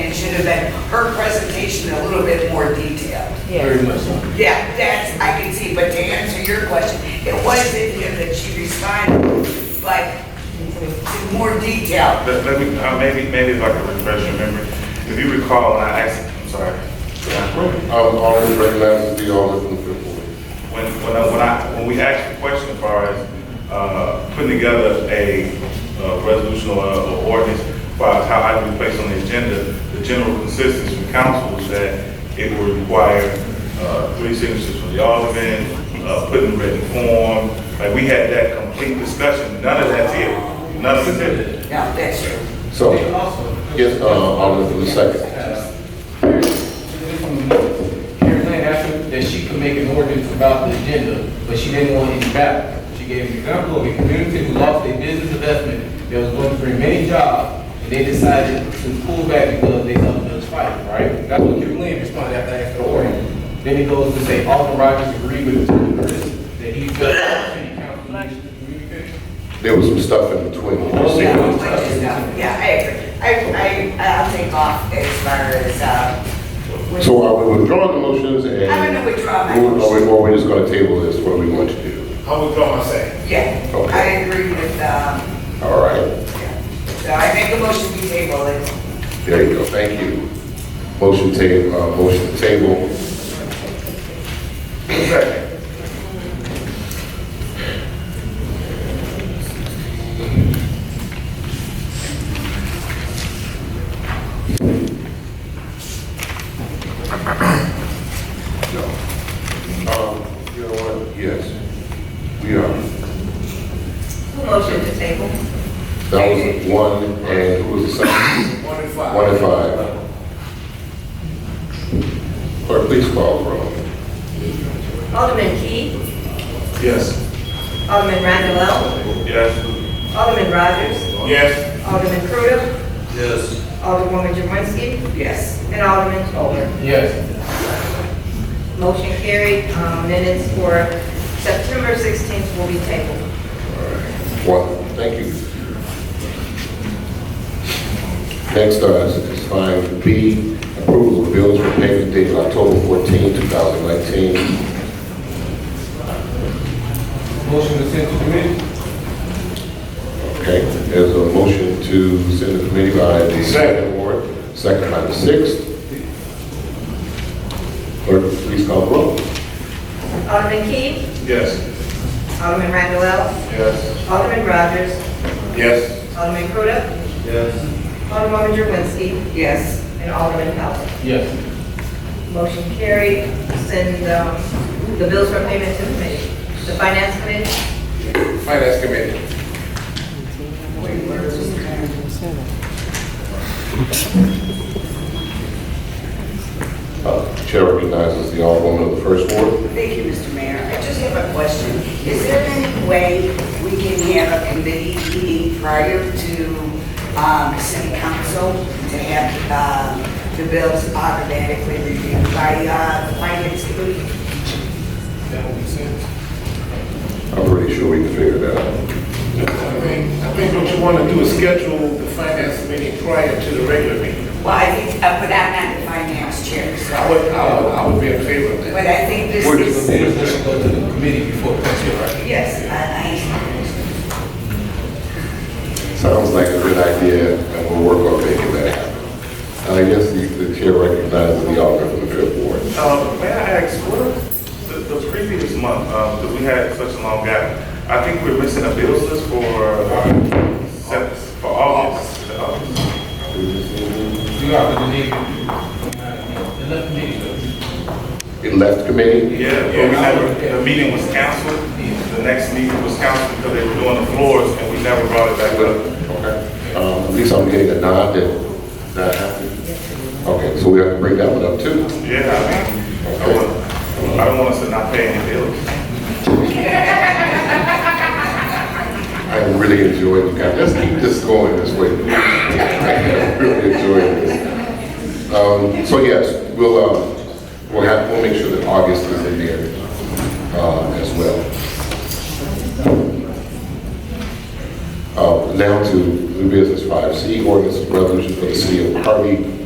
into that, her presentation a little bit more detailed. Very Yeah, much so. Yeah, that's, I can see, but to answer your question, it was in here that she responded, but in more detail. Let, let me, uh, maybe, maybe like a refresher memory. If you recall, and I asked, I'm sorry. I was already recognized to be on the fifth ward. When, when I, when I, when we asked the question as far as, uh, putting together a, uh, resolution or, or ordinance, as far as how I be placed on the agenda, the general consensus from council was that it would require, uh, three signatures from the alderman, uh, put in written form. Like, we had that complete discussion. None of that's here. None of it's here. No, that's true. So, yes, uh, Alderman from the second. Uh, Karen Lane asked that she could make an ordinance about the agenda, but she didn't want any battle. She gave an example of a community who lost their business investment, that was going to bring many jobs, and they decided to pull back because they thought there was fighting, right? That's what Karen Lane responded after I asked for the ordinance. Then it goes to say, Alden Rogers agreed with Attorney Curtis that he felt any council needs to communicate. There was some stuff in between. Oh, Yeah, which is, uh, yeah, I agree. I, I, I'll take off as far as, uh. So are we withdrawing the motions and? I'm gonna withdraw my Or- Or motion. or we're just gonna table this, what are we going to do? How we going, I say? Yeah, Okay. I agree with, um, All right, yeah. So I make a motion to table it. there you go, thank you. Motion table, uh, motion to table. No. Um, you know what, yes, we are. Motion to table. That was one, and who was the second? One and One and five. Clerk, please call the roll. Alderman Key, Yes. Alderman Randall, Yes. Alderman Rogers, Yes. Alderman Crute, Yes. Alderwoman Jermenski, Yes. and Alderman Toler. Yes. Motion carried, Um, minutes for September 16th will be tabled. One, thank you. Next uh, is- is five B, approval of bills for payment dated October 14, 2019. Motion to send to committee? Okay, there's a motion to send to committee by the second ward, second by the sixth. Clerk, please call the roll. Alderman Key, Yes. Alderman Randall, Yes. Alderman Rogers, Yes. Alderman Crute, Yes. Alderwoman Jermenski, Yes. and Alderman Toler. Yes. Motion carried, send um, the bills for payment to the committee. The finance committee? Finance Committee. Uh, Chair recognizes the Alderwoman of the First Ward. Thank you, Mr. Mayor. I just have a question. Is there any way we can have a committee meeting prior to um, city council to have um, the bills automatically reviewed by uh, the finance committee? That will be sent. I'm pretty sure we can figure that out. I think, I think what you want to do is schedule the finance meeting prior to the regular meeting. Well, I think, uh, but I'm not the finance chair, I so, would, I would, I would be in favor of that. but I think this We're just, is, we're just gonna go to the committee before it comes here, right? yes, I, Sounds like a good idea, and we'll work on making that happen. And I guess the the Chair recognizes the Alderwoman of the Fifth Ward. Um, may I ask, what, the, the previous month, um, that we had such a long gap, I think we're missing a bills list for, uh, Sep- for August. Uh, You are the leader. The left leader. It left committee? Yeah, yeah, we never, the meeting was canceled, the next meeting was canceled because they were doing the floors and we never brought it back up. Okay. Um, At least I'm getting a nod that that happened. Okay, so we have to bring that one up too? Yeah, I mean, I want, I don't want us to not pay any bills. I am really enjoying you guys. Let's keep this going this way. I am really enjoying this. Um, so yes, we'll, um, we'll have, we'll make sure that August is in there, uh, as well. Uh, now to new business five C, ordinance and resolution for the city of Harvey